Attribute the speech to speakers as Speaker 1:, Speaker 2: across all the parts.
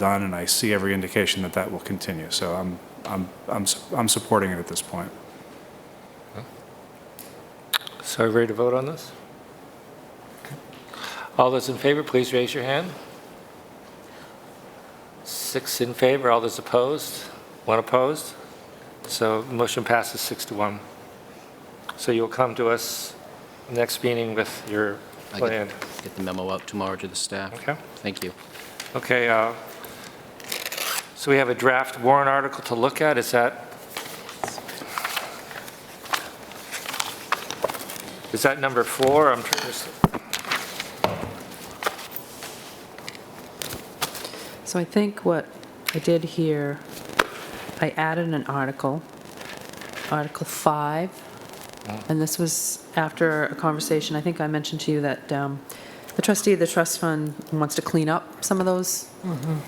Speaker 1: done, and I see every indication that that will continue. So I'm, I'm, I'm, su- I'm supporting it at this point.
Speaker 2: So are we ready to vote on this? All those in favor, please raise your hand. Six in favor, all those opposed, one opposed. So motion passes six to one. So you'll come to us next meeting with your
Speaker 3: I get-
Speaker 2: plan,
Speaker 3: Get the memo out tomorrow to the staff.
Speaker 2: okay?
Speaker 3: Thank you.
Speaker 2: Okay, uh, so we have a draft warrant article to look at, is that? Is that number four? I'm trying to...
Speaker 4: So I think what I did here, I added an article, Article 5, and this was after a conversation, I think I mentioned to you that um, the trustee of the trust fund wants to clean up some of those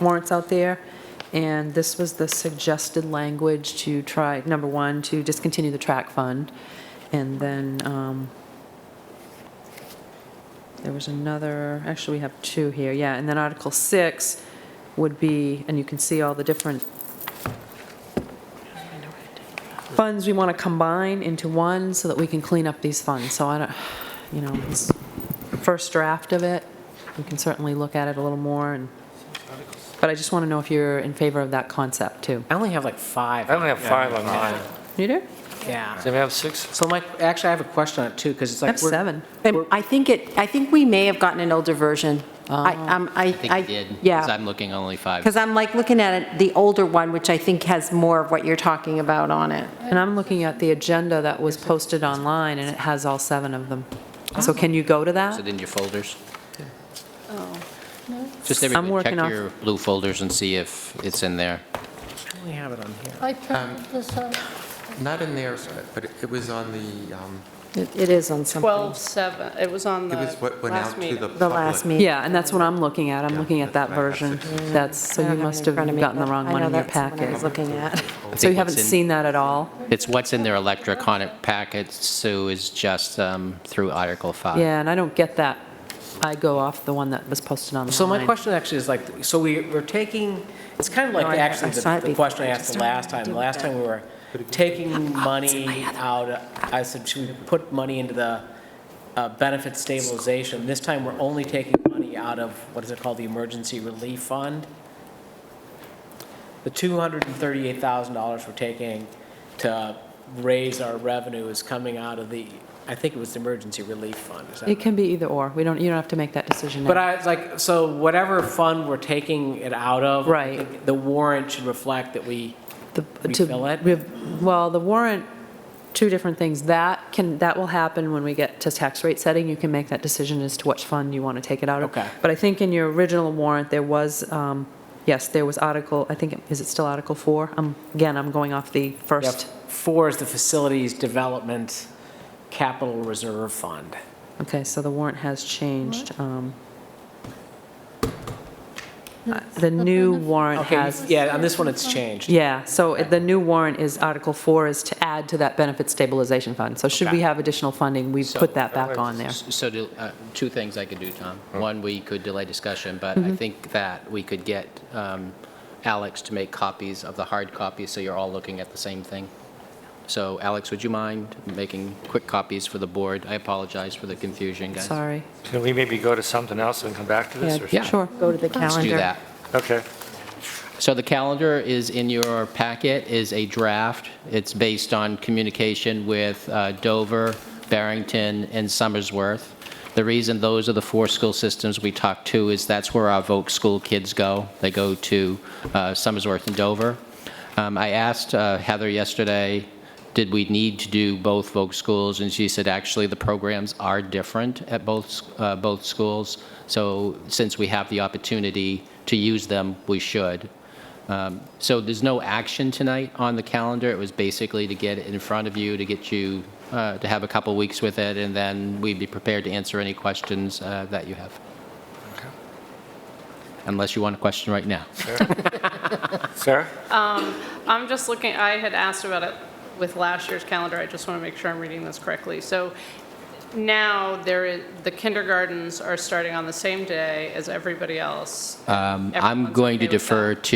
Speaker 4: warrants out there, and this was the suggested language to try, number one, to discontinue the track fund, and then um, there was another, actually, we have two here, yeah. And then Article 6 would be, and you can see all the different funds we want to combine into one so that we can clean up these funds. So I don't, you know, it's the first draft of it. We can certainly look at it a little more and, but I just want to know if you're in favor of that concept, too.
Speaker 5: I only have like five.
Speaker 2: I only have five on mine.
Speaker 4: You do?
Speaker 5: Yeah.
Speaker 2: Does anybody have six?
Speaker 5: So like, actually, I have a question on it too, because it's
Speaker 4: I
Speaker 5: like.
Speaker 4: have
Speaker 5: we're-
Speaker 4: seven.
Speaker 5: we're-
Speaker 6: I think it, I think we may have gotten an older version. I, um, I.
Speaker 3: Oh, I think you did. 'cause
Speaker 6: Yeah,
Speaker 3: I'm looking only five.
Speaker 6: because I'm like looking at it, the older one, which I think has more of what you're talking about on it.
Speaker 4: And I'm looking at the agenda that was posted online, and it has all seven of them. So can you go to
Speaker 3: Is
Speaker 4: that?
Speaker 3: it in your folders? Just everybody,
Speaker 4: working
Speaker 3: check
Speaker 4: off-
Speaker 3: your blue folders and see if it's in there.
Speaker 5: I only have it on here.
Speaker 7: I printed this out,
Speaker 8: Not in there, but it was on the, um,
Speaker 6: It is on something.
Speaker 7: 12/7, it was on the
Speaker 8: it was what went
Speaker 7: last
Speaker 8: out to
Speaker 7: meeting.
Speaker 8: the public.
Speaker 6: The last meeting.
Speaker 4: Yeah, and that's what I'm looking at. I'm looking at that
Speaker 8: that's what I have
Speaker 4: version.
Speaker 8: six
Speaker 4: That's, so
Speaker 6: I
Speaker 4: you
Speaker 6: don't have it
Speaker 4: must
Speaker 6: in
Speaker 4: have
Speaker 6: front of me,
Speaker 4: gotten the
Speaker 6: but
Speaker 4: wrong
Speaker 6: I
Speaker 4: one
Speaker 6: know
Speaker 4: in your
Speaker 6: that's the one I was
Speaker 4: packet.
Speaker 6: looking at.
Speaker 4: So you
Speaker 3: think
Speaker 4: haven't
Speaker 3: it's in-
Speaker 4: seen that at all?
Speaker 3: It's what's in their electronic packet, Sue, is just um, through Article 5.
Speaker 4: Yeah, and I don't get that. I go off the one that was posted online.
Speaker 5: So my question actually is like, so we, we're taking, it's kind of like
Speaker 6: No, I-
Speaker 5: actually
Speaker 6: I saw
Speaker 5: the
Speaker 6: it
Speaker 5: the
Speaker 6: before,
Speaker 5: question I
Speaker 6: I
Speaker 5: asked
Speaker 6: just
Speaker 5: the
Speaker 6: don't know
Speaker 5: last
Speaker 6: what to
Speaker 5: time.
Speaker 6: do
Speaker 5: The
Speaker 6: with
Speaker 5: last
Speaker 6: that.
Speaker 5: time we were
Speaker 6: Oh,
Speaker 5: taking money out, I said, should we put money into the uh, benefit stabilization? This time, we're only taking money out of, what is it called, the emergency relief fund? The $238,000 we're taking to raise our revenue is coming out of the, I think it was the emergency relief fund, is that
Speaker 4: It can be either or. We don't, you don't have to make that decision now.
Speaker 5: but I, it's like, so whatever fund we're taking it out of. I
Speaker 4: Right.
Speaker 5: think The warrant should reflect that we,
Speaker 4: The- to-
Speaker 5: Refill it?
Speaker 4: rev- Well, the warrant, two different things. That can, that will happen when we get to tax rate setting. You can make that decision as to which fund you want to take it out of.
Speaker 5: Okay.
Speaker 4: But I think in your original warrant, there was, um, yes, there was Article, I think, it- is it still Article 4? Um, Again, I'm going off the
Speaker 5: yeah,
Speaker 4: first.
Speaker 5: four is the facilities development capital reserve fund.
Speaker 4: Okay, so the warrant has changed. um, uh, The new warrant
Speaker 5: Okay,
Speaker 4: has
Speaker 5: yeah, on this one, it's changed.
Speaker 4: Yeah, so the new warrant is Article 4 is to add to that benefit stabilization fund. So should we have additional funding, we put that back on there.
Speaker 3: S- So, do- uh, two things I could do, Tom. One, we could delay discussion, but
Speaker 4: Mm-hmm.
Speaker 3: I think that we could get um, Alex to make copies of the hard copies, so you're all looking at the same thing. So, Alex, would you mind making quick copies for the board? I apologize for the confusion, guys.
Speaker 4: Sorry.
Speaker 2: Can we maybe go to something else and come back to this? or-
Speaker 3: Yeah.
Speaker 4: Sure.
Speaker 6: Go to the
Speaker 3: Let's
Speaker 6: calendar.
Speaker 3: do that.
Speaker 2: Okay.
Speaker 3: So the calendar is in your packet, is a draft. It's based on communication with uh, Dover, Barrington, and Somersworth. The reason those are the four school systems we talked to is that's where our Voke school kids go. They go to uh, Somersworth and Dover. Um, I asked uh, Heather yesterday, did we need to do both Vogue schools? And she said, actually, the programs are different at both, uh, both schools. So since we have the opportunity to use them, we should. Um, So there's no action tonight on the calendar. It was basically to get it in front of you, to get you, uh, to have a couple weeks with it, and then we'd be prepared to answer any questions uh, that you have. Unless you want a question right now.
Speaker 2: Sarah?
Speaker 7: I'm just looking, I had asked about it with last year's calendar, I just want to make sure I'm reading this correctly. So now, there is, the kindergartens are starting on the same day as everybody else.
Speaker 3: Um,
Speaker 7: Everyone's
Speaker 3: I'm going to
Speaker 7: okay with that?
Speaker 3: defer to